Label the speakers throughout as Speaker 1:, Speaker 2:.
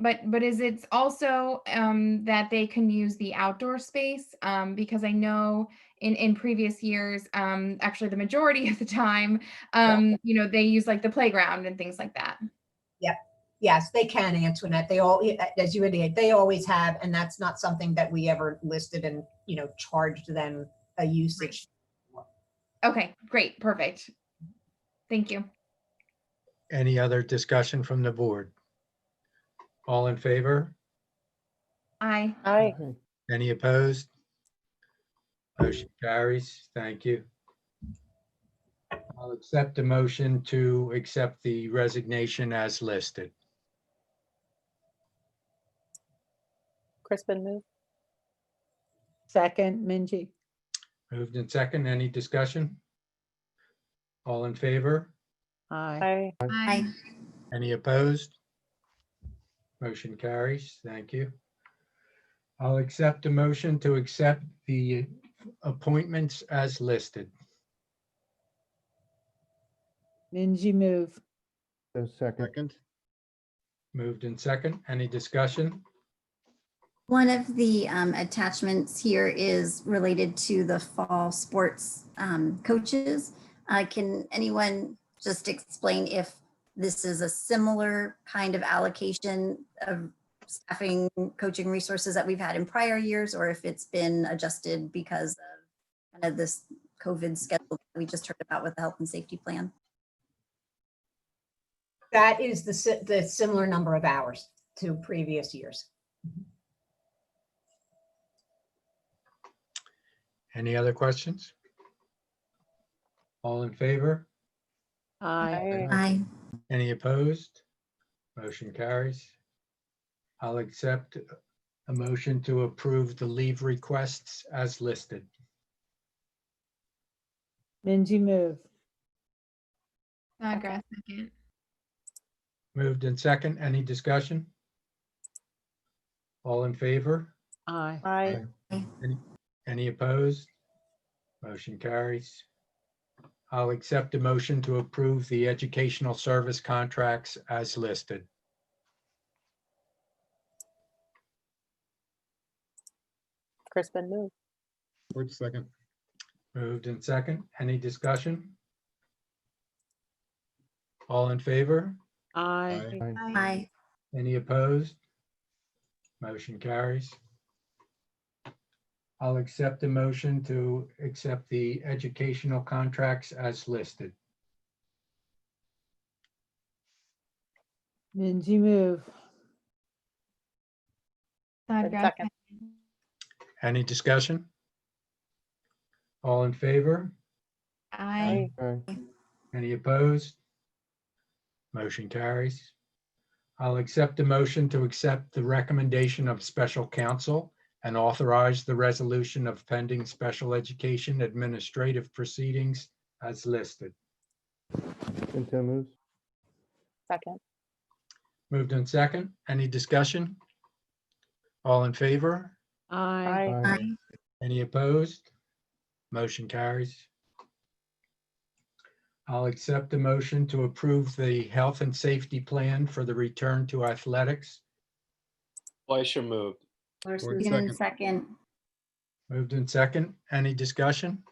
Speaker 1: But, but is it also um, that they can use the outdoor space? Um, Because I know in, in previous years, um, actually the majority of the time,
Speaker 2: Yeah.
Speaker 1: um, you know, they use like the playground and things like that.
Speaker 2: Yes, they can, Antoinette. They all, as you indicate, they always have, and that's not something that we ever listed and, you know, charged them a usage.
Speaker 1: Okay, great, perfect. Thank you.
Speaker 3: Any other discussion from the board? All in favor?
Speaker 1: I,
Speaker 4: Aye.
Speaker 3: Any opposed? Motion carries. Thank you. I'll accept the motion to accept the resignation as listed.
Speaker 4: Crispin move.
Speaker 5: Second, Minji.
Speaker 3: Moved in second. Any discussion? All in favor?
Speaker 5: Aye.
Speaker 4: Aye.
Speaker 1: I,
Speaker 3: Any opposed? Motion carries. Thank you. I'll accept a motion to accept the appointments as listed.
Speaker 5: Minji move.
Speaker 6: A second.
Speaker 7: Second,
Speaker 3: Moved in second. Any discussion?
Speaker 8: One of the um, attachments here is related to the fall sports um, coaches. Uh, Can anyone just explain if this is a similar kind of allocation of staffing, coaching resources that we've had in prior years? Or if it's been adjusted because of kind of this COVID schedule that we just heard about with the health and safety plan?
Speaker 2: That is the, si- the similar number of hours to previous years.
Speaker 3: Any other questions? All in favor?
Speaker 5: Aye.
Speaker 8: Aye.
Speaker 3: Any opposed? Motion carries. I'll accept a motion to approve the leave requests as listed.
Speaker 5: Minji move.
Speaker 1: Snodgrass, second.
Speaker 3: Moved in second. Any discussion? All in favor?
Speaker 5: Aye.
Speaker 4: Aye.
Speaker 3: Any opposed? Motion carries. I'll accept a motion to approve the educational service contracts as listed.
Speaker 4: Crispin move.
Speaker 7: Ford second,
Speaker 3: Moved in second. Any discussion? All in favor?
Speaker 5: Aye.
Speaker 7: Aye.
Speaker 8: Aye.
Speaker 3: Any opposed? Motion carries. I'll accept the motion to accept the educational contracts as listed.
Speaker 5: Minji move.
Speaker 1: Snodgrass,
Speaker 4: second.
Speaker 1: second.
Speaker 3: Any discussion? All in favor?
Speaker 1: I,
Speaker 6: Aye.
Speaker 3: Any opposed? Motion carries. I'll accept the motion to accept the recommendation of special counsel and authorize the resolution of pending special education administrative proceedings as listed.
Speaker 6: Intel moves.
Speaker 4: Second.
Speaker 3: Moved in second. Any discussion? All in favor?
Speaker 5: Aye.
Speaker 8: Aye.
Speaker 3: Any opposed? Motion carries. I'll accept a motion to approve the health and safety plan for the return to athletics.
Speaker 9: Fleischer moved.
Speaker 7: Ford
Speaker 8: Even
Speaker 7: second,
Speaker 8: second.
Speaker 3: Moved in second. Any discussion?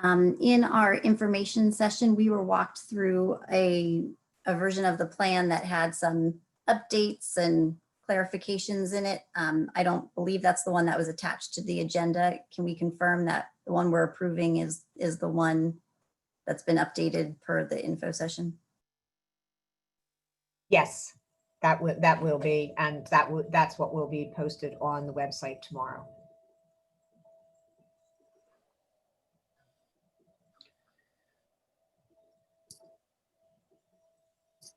Speaker 8: Um, in our information session, we were walked through a, a version of the plan that had some updates and clarifications in it. Um, I don't believe that's the one that was attached to the agenda. Can we confirm that the one we're approving is, is the one that's been updated per the info session?
Speaker 2: Yes, that would, that will be, and that would, that's what will be posted on the website tomorrow.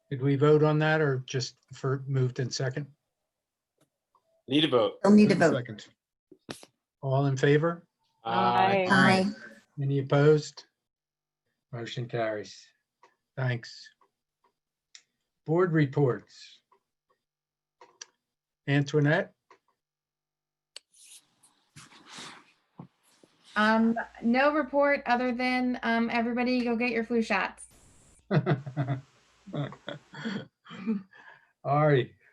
Speaker 3: Did we vote on that or just for moved in second?
Speaker 9: Need a vote.
Speaker 8: They'll need a
Speaker 7: Ford
Speaker 8: vote.
Speaker 7: second,
Speaker 3: All in favor?
Speaker 9: Aye.
Speaker 8: Aye.
Speaker 3: Any opposed? Motion carries. Thanks. Board reports. Antoinette?
Speaker 1: um, no report other than, um, everybody go get your flu shots.
Speaker 3: Ari,